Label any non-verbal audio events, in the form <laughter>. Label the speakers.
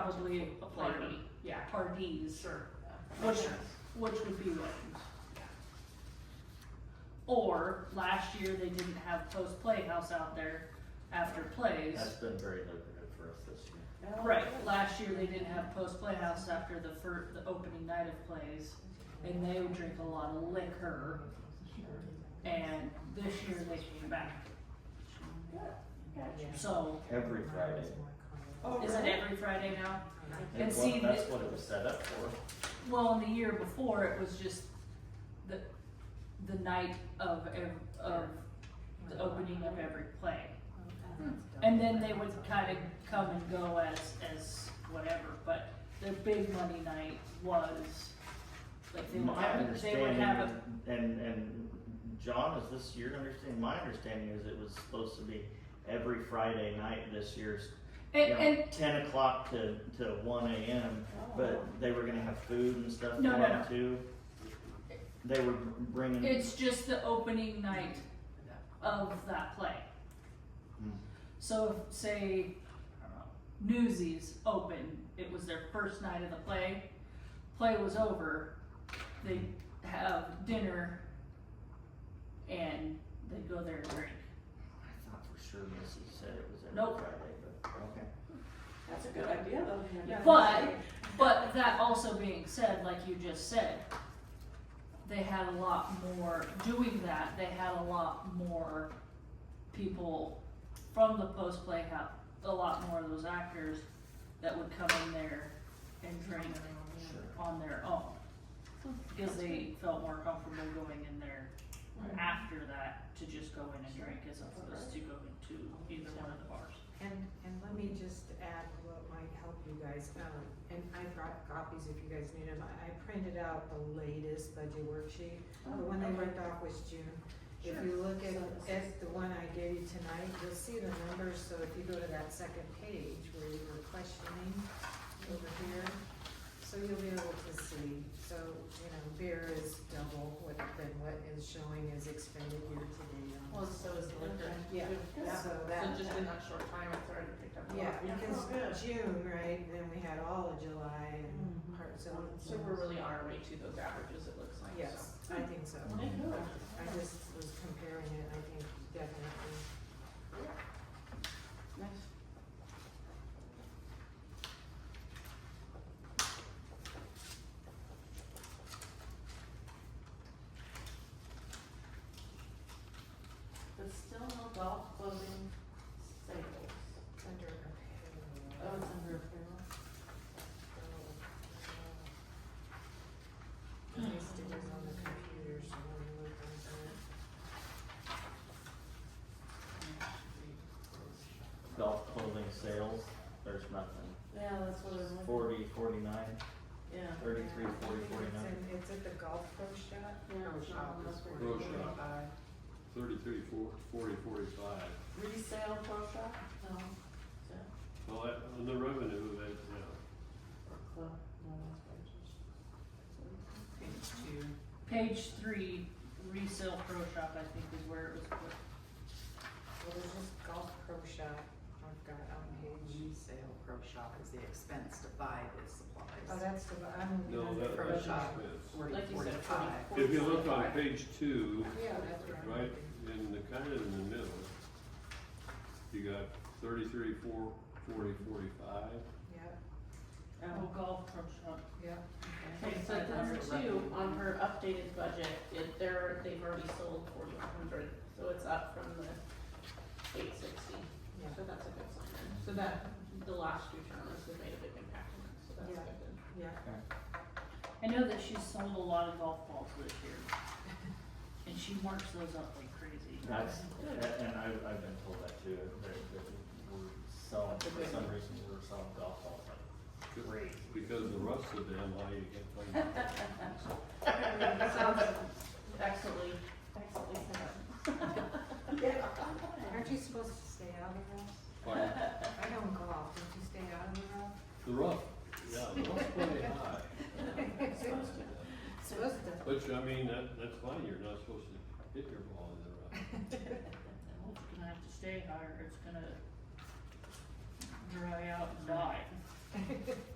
Speaker 1: probably a
Speaker 2: Party.
Speaker 1: Yeah, parties,
Speaker 2: Sure.
Speaker 1: which, which would be weddings. Or, last year, they didn't have post playhouse out there after plays.
Speaker 3: That's been very lucrative for us this year.
Speaker 1: Right, last year they didn't have post playhouse after the fir- the opening night of plays, and they would drink a lot of liquor. And this year they came back, so,
Speaker 3: Every Friday.
Speaker 2: Oh,
Speaker 1: is it
Speaker 2: really?
Speaker 1: every Friday now?
Speaker 3: And
Speaker 1: And
Speaker 3: well,
Speaker 1: see,
Speaker 3: that's
Speaker 1: thi-
Speaker 3: what it was set up for.
Speaker 1: Well, in the year before, it was just the, the night of, ev- of the opening of every play. And then they would kind of come and go as, as whatever, but their big money night was, like, they would
Speaker 3: My
Speaker 1: have, a- they would
Speaker 3: understanding,
Speaker 1: have a,
Speaker 3: and, and John, is this your understanding? My understanding is it was supposed to be every Friday night this year's, you
Speaker 1: and, and Oh.
Speaker 3: know, ten o'clock to, to one AM. But they were gonna have food and stuff
Speaker 1: No,
Speaker 3: for
Speaker 1: no,
Speaker 3: them
Speaker 1: no.
Speaker 3: too. They were bringing.
Speaker 1: It's just the opening night of that play.
Speaker 3: Hmm.
Speaker 1: So if, say, I don't know, Newsies opened, it was their first night of the play, play was over, they have dinner and they go there and drink.
Speaker 3: I thought for sure Missy said it was every
Speaker 1: Nope.
Speaker 3: Friday, but, okay.
Speaker 2: That's a good idea though.
Speaker 1: Yeah. But- But that also being said, like you just said, they had a lot more, doing that, they had a lot more people from the post playhouse, a lot more of those actors that would come in there and drink
Speaker 3: Sure.
Speaker 1: on their own. Because they felt more comfortable going in there after that to just go in and drink as opposed to going to either one of the bars.
Speaker 4: And, and let me just add what might help you guys, um, and I brought copies if you guys need them, I, I printed out the latest budget worksheet. The
Speaker 5: Oh,
Speaker 4: one they worked off was June, if you look at, at the one I gave you tonight, you'll see the numbers, so if you go to that second page where you were questioning over here, so you'll be able to see, so, you know, beer is double what, than what is showing is expended year to date on.
Speaker 5: Well, so is the liquor.
Speaker 4: Yeah,
Speaker 5: Yeah.
Speaker 4: so that.
Speaker 5: So just in that short time, it's already picked up a lot.
Speaker 4: Yeah,
Speaker 2: Yeah. Oh, good.
Speaker 4: because June, right, and then we had all of July and parts of.
Speaker 5: So we're really on our way to those averages, it looks like, so.
Speaker 4: Yes, I think so.
Speaker 5: Okay, cool.
Speaker 4: I just was comparing it, I think definitely.
Speaker 5: Nice.
Speaker 2: But still no golf clothing sales.
Speaker 4: Under.
Speaker 2: Oh, it's under apparel.
Speaker 4: My stickers on the computer, so when you look into it.
Speaker 3: Golf clothing sales, there's nothing.
Speaker 2: Yeah, that's what I'm looking,
Speaker 3: Forty, forty-nine,
Speaker 2: yeah.
Speaker 3: thirty-three,
Speaker 4: Yeah, I
Speaker 3: forty,
Speaker 4: think it's
Speaker 3: forty-nine.
Speaker 4: in- It's at the golf pro shop.
Speaker 2: Yeah,
Speaker 4: Pro
Speaker 2: it's
Speaker 4: shop is
Speaker 2: not listed.
Speaker 4: where you go
Speaker 6: Pro shop.
Speaker 4: buy.
Speaker 6: Thirty-three, four, forty, forty-five.
Speaker 2: Resale pro shop? No. Is that-
Speaker 6: Well, that- on the revenue, that, yeah.
Speaker 2: Or club? No, that's wages.
Speaker 5: Page two.
Speaker 1: Page three, resale pro shop, I think is where it was put.
Speaker 4: Well, there's this golf pro shop I've got on page.
Speaker 5: Resale pro shop is the expense to buy the
Speaker 4: Oh,
Speaker 5: supplies.
Speaker 4: that's the, I'm.
Speaker 6: No, that,
Speaker 5: Pro
Speaker 6: that's
Speaker 5: shop.
Speaker 6: expense.
Speaker 5: Forty,
Speaker 2: Like you said,
Speaker 5: forty-five.
Speaker 2: forty.
Speaker 6: If you look on page two,
Speaker 4: Yeah, that's right.
Speaker 6: right, in the, kind of in the middle, you got thirty-three, four, forty, forty-five.
Speaker 4: Yep,
Speaker 1: Oh, golf pro shop.
Speaker 4: yep.
Speaker 2: Okay, so number two, on her updated budget, it, they're, they've already sold forty-one hundred, so it's up from the eight sixty.
Speaker 4: Yeah.
Speaker 2: So that's a good sign then. So that, the last two tournaments have made a big impact on it, so that's
Speaker 4: Yeah.
Speaker 2: good then.
Speaker 4: Yeah,
Speaker 1: I know that she's sold a lot of golf balls this
Speaker 2: <laughs>
Speaker 1: year. And she marks those up like crazy.
Speaker 3: That's, a- and I, I've been told that too, that, that we're selling, for some reason, we're selling golf balls like crazy.
Speaker 6: Because the rest of them, all you get, like,
Speaker 2: Sounds excellently, excellently set up.
Speaker 4: aren't you supposed to stay out of the
Speaker 6: like,
Speaker 4: rough? I don't golf, don't you stay out of the rough?
Speaker 6: the rough, yeah, the rough's pretty high. <laughs>
Speaker 4: Supposed to.
Speaker 6: Which, I mean, that, that's fine, you're not supposed to hit your ball in the rough.
Speaker 1: Well, It's gonna have to stay higher, it's gonna dry out and die.
Speaker 4: Okay.